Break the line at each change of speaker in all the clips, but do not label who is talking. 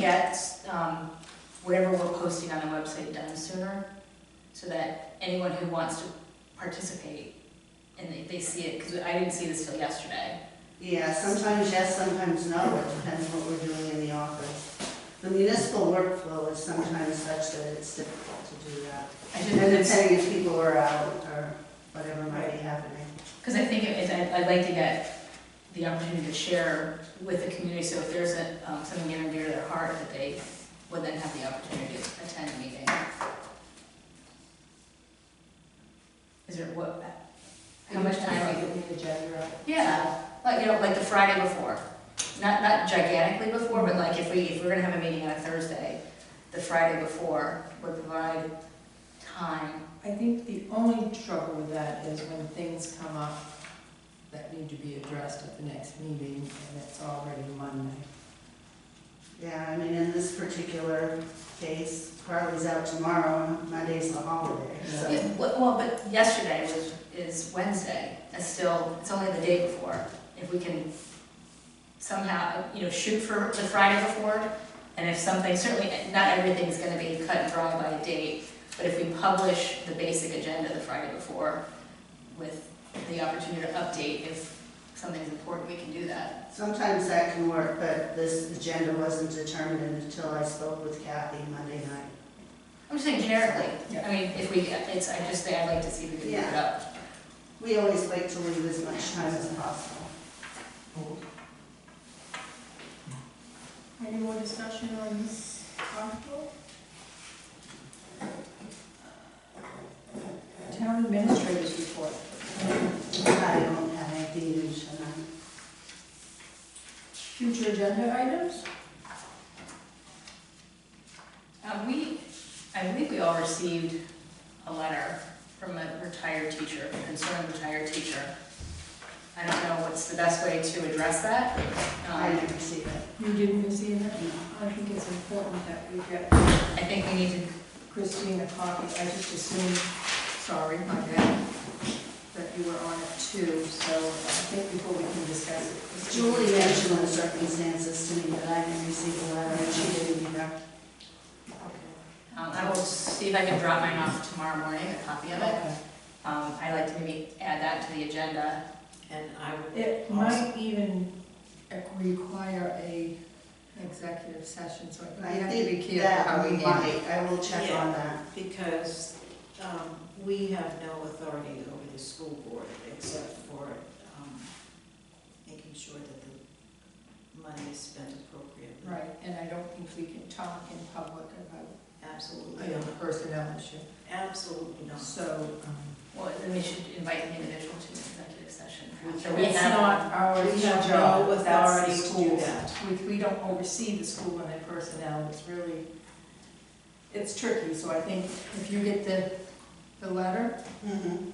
get, um, whatever we're posting on the website done sooner, so that anyone who wants to participate, and they, they see it, because I didn't see this till yesterday.
Yeah, sometimes yes, sometimes no, it depends what we're doing in the office. The municipal workflow is sometimes such that it's difficult to do that.
I
And
didn't,
depending if people are out or whatever might be happening.
because I think it, I- I'd like to get the opportunity to share with the community, so if there's a, um, something near and dear to their heart, that they would then have the opportunity to attend a meeting. Is there, what, how much time?
we need agenda up?
Yeah, like, you know, like the Friday before, not, not gigantically before, but like if we, if we're gonna have a meeting on a Thursday, the Friday before would provide time.
I think the only trouble with that is when things come up that need to be addressed at the next meeting, and it's already Monday.
Yeah, I mean, in this particular case, Carly's out tomorrow, and Monday's the holiday,
Yeah,
so.
Well, well, but yesterday was, is Wednesday, that's still, it's only the day before. If we can somehow, you know, shoot for the Friday before, and if something, certainly, not everything's gonna be cut and dry by a date, but if we publish the basic agenda the Friday before with the opportunity to update if something's important, we can do that.
Sometimes that can work, but this agenda wasn't determined until I spoke with Kathy Monday night.
I'm just saying generically,
Yeah.
I mean, if we, it's, I just say I'd like to see if we can move it up.
We always like to leave as much time as possible.
Any more discussion on this article?
Town administrators report.
I don't have anything new tonight.
Future agenda items?
Um, we, I believe we all received a letter from a retired teacher, a concerned retired teacher. I don't know what's the best way to address that.
I
Um,
didn't see it.
You didn't receive it?
no.
I think it's important that we get
I think we need to,
Christine a copy. I just assumed, sorry, my bad, that you were on it too, so I think before we can discuss it. Christine-
Julie mentioned the circumstances to me, but I didn't receive the letter, and she didn't either.
Okay.
um, I will see if I can drop mine off tomorrow morning, a copy of it.
Okay.
Um, I'd like to maybe add that to the agenda.
And I would,
It might even require a executive session, so I think
I
we have to be
think
careful how
that
we
we
handle it.
might, I will check
Yeah.
on that.
because um, we have no authority over the school board except for um, making sure that the money is spent appropriately.
Right, and I don't think we can talk in public about
Absolutely,
you know,
not.
personnel issue.
absolutely not.
So, um,
Well, then we should invite the individual to an executive session. after we
it's
have-
not our
We have
job,
no
it's our
authority to do
school.
that.
We, we don't oversee the school and their personnel, it's really, it's tricky, so I think if you get the, the letter,
Mhm.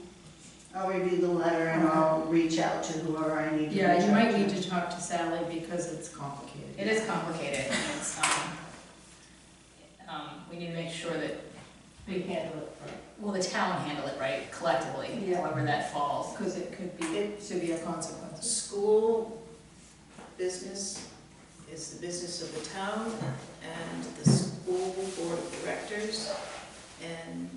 I'll review the letter and I'll reach out to whoever I need to.
yeah,
reach
you
out
might need to talk to Sally because it's complicated.
It is complicated, and it's, um, um, we need to make sure that
We handle it right.
Will the town handle it right collectively,
Yeah.
however that falls?
Because it could be
It-
severe consequences.
School business is the business of the town and the school board of directors and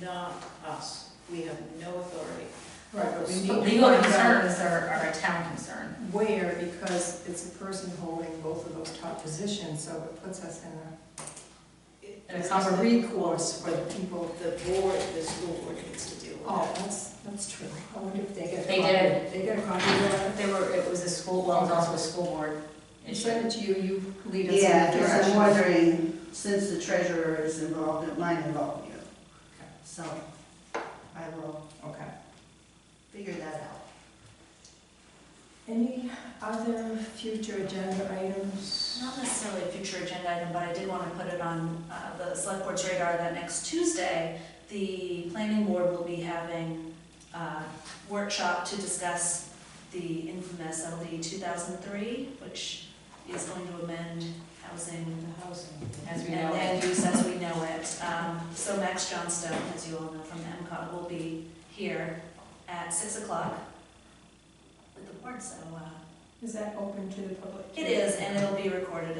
not us. We have no authority.
Right, but we need
But
to
Legal
find out
concerns are, are a town concern.
where, because it's a person holding both of those top positions, so it puts us in a-
It-
And it's
it's a recourse for the people.
The board, the school board needs to deal with
Oh,
that.
that's, that's true. I wonder if they get a
They
copy.
did.
They get a copy of that.
They were, it was a school, well, it was also a school board
I
issue.
send it to you, you lead us in
Yeah,
that
because I'm
direction.
wondering, since the treasurer is involved, it might involve you. So I will
Okay.
figure that out.
Any other future agenda items?
Not necessarily a future agenda item, but I did want to put it on uh, the select board's radar that next Tuesday, the planning board will be having a workshop to discuss the infamous LD 2003, which is going to amend housing
The housing.
As we
and
know,
land use as we know it. Um, So Max Johnstone, as you all know from MCOT, will be here at 6 o'clock with the board, so uh,
Is that open to the public?
it is, and it'll be recorded